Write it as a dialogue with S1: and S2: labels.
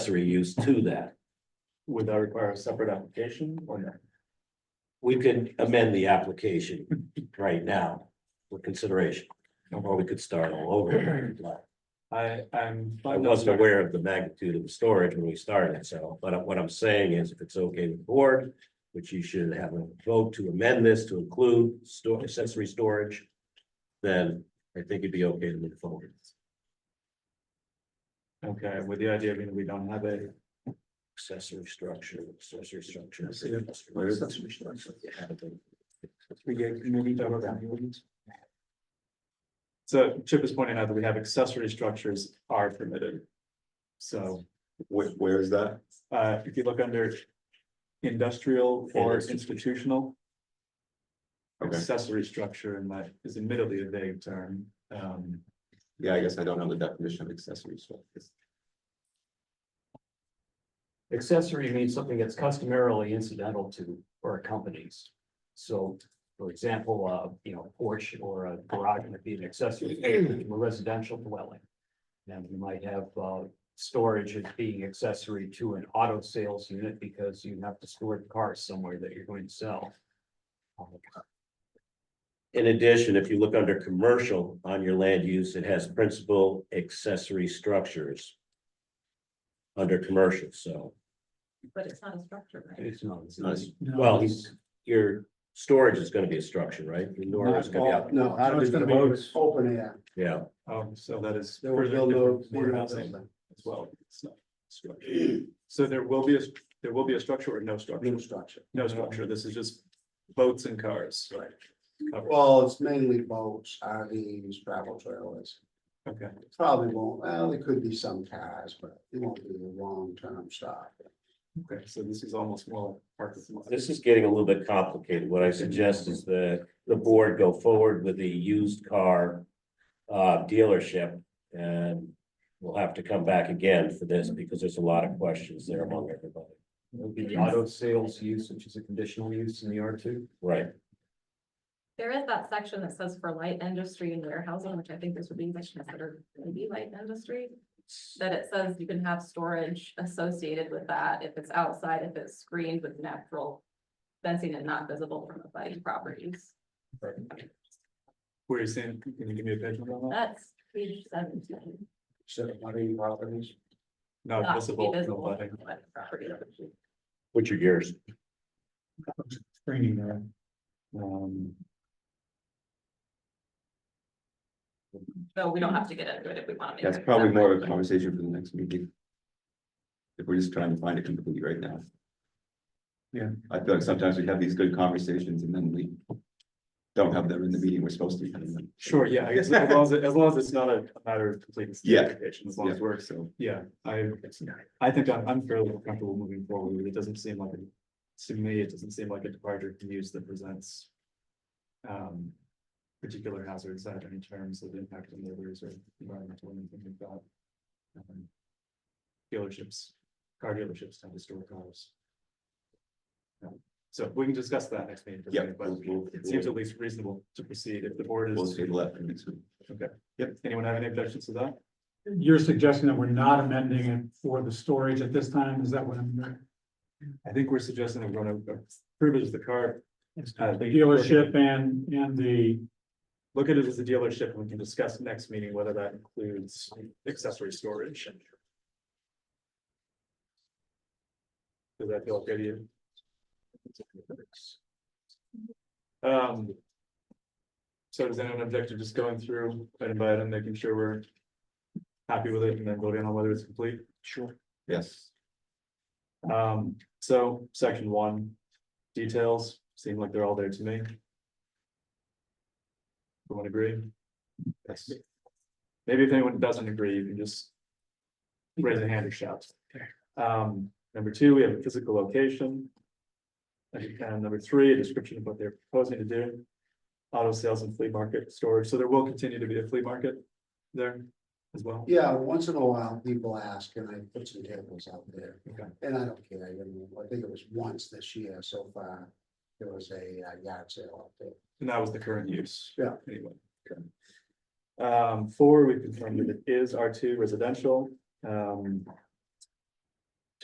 S1: accessory use to that.
S2: Would that require a separate application or not?
S1: We could amend the application right now for consideration, or we could start all over. if you'd like.
S2: I, I'm.
S1: I wasn't aware of the magnitude of the storage when we started, so, but what I'm saying is if it's okay with the board, which you should have a vote to amend this to include store accessory storage, then I think it'd be okay to move forward.
S2: Okay, with the idea being we don't have a,
S1: Accessory structure, accessory structure.
S2: I see it. Where is it? we get community that we're valuing. So Chip is pointing out that we have accessory structures are permitted. So,
S3: Where, where is that?
S2: uh, if you look under industrial or
S1: And institutional.
S2: institutional.
S3: Okay.
S2: Accessory structure, and that is admittedly a vague term, um.
S3: Yeah, I guess I don't know the definition of accessory structure.
S4: Accessory means something that's customarily incidental to or accompanies. So, for example, uh, you know, porch or a garage would be an accessory to a residential dwelling. And you might have, uh, storage as being accessory to an auto sales unit because you have to store the cars somewhere that you're going to sell.
S1: In addition, if you look under commercial on your land use, it has principal accessory structures. Under commercial, so,
S5: But it's not a structure, right?
S4: It's not, it's not.
S3: Nice.
S1: well, he's, your storage is gonna be a structure, right? Your door is gonna be out,
S6: No,
S2: how
S6: it's
S2: did
S6: gonna
S2: we
S6: be
S2: vote?
S6: open air.
S1: yeah,
S2: Um, so that is.
S6: There was
S2: further
S6: no
S2: different from
S6: no-
S2: what I'm saying As well. It's not structure. So there will be a, there will be a structure or no structure?
S6: No structure.
S2: No structure. This is just boats and cars. Right.
S6: Well, it's mainly boats, RVs, travel trailers.
S2: Okay,
S6: Probably won't, well, there could be some cars, but it won't be a long-term stop.
S2: okay. So this is almost more part of. the-
S1: this is getting a little bit complicated. What I suggest is the, the board go forward with the used car. Uh, dealership and we'll have to come back again for this because there's a lot of questions there among everybody.
S4: It would be auto sales use, which is a conditional use in the R two.
S1: Right,
S5: There is that section that says for light industry and warehousing, which I think this would be like considered maybe light industry. That it says you can have storage associated with that if it's outside, if it's screened with natural fencing and not visible from abutting properties.
S2: Where you're saying, can you give me a page number on that?
S5: That's page seventeen.
S6: So, marine properties.
S2: Not
S5: not to be
S2: visible. from
S5: visible
S2: abutting.
S5: from abutting property.
S1: which are yours?
S2: Screening there. Um,
S5: So we don't have to get into it if we want to.
S3: That's probably more of a conversation for the next meeting. If we're just trying to find it completely right now.
S2: Yeah.
S3: I feel like sometimes we have these good conversations and then we don't have them in the meeting we're supposed to. be having them.
S2: Sure, yeah, I guess as long as, it- as long as it's not a matter of complete.
S3: Yeah.
S2: clarification, As long as
S3: Yeah,
S2: we're,
S3: So,
S2: yeah, I, I think I'm, I'm fairly comfortable moving forward. It doesn't seem like, a- to me, it doesn't seem like a departure from use that presents. Um, particular hazards at any terms of impact on neighbors or environmental or anything like that. Um, Dealerships, car dealerships tend to store cars. Um, So we can discuss that next meeting.
S3: yeah.
S2: but it seems at least reasonable to proceed if the board
S3: We'll
S2: is,
S3: table that for next week.
S2: yep, anyone have any objections to that?
S7: You're suggesting that we're not amending it for the storage at this time, is that what I'm?
S2: I think we're suggesting that we're gonna approve it as the car, Uh,
S7: The dealership and, and the,
S2: look at it as a dealership, and we can discuss next meeting whether that includes accessory storage. Does that feel okay to you? Um. So does anyone object to just going through item by item, making sure we're happy with it and then voting on whether it's complete? Sure.
S3: Yes.
S2: Um, so section one, details seem like they're all there to me. Everyone agree?
S3: Yes.
S2: Maybe if anyone doesn't agree, you can just raise a hand or shout. Um, number two, we have a physical location. And uh, number three, a description of what they're proposing to do. Auto sales and flea market storage, so there will continue to be a flea market there as well.
S6: Yeah, once in a while, people ask, and I put some tables out there.
S2: Okay.
S6: And I don't care, I mean, I think it was once this year so far, there was a uh, yard sale out there.
S2: And that was the current use.
S6: Yeah.
S2: Anyway. okay. Um, four, we confirmed that it is R two residential. Um,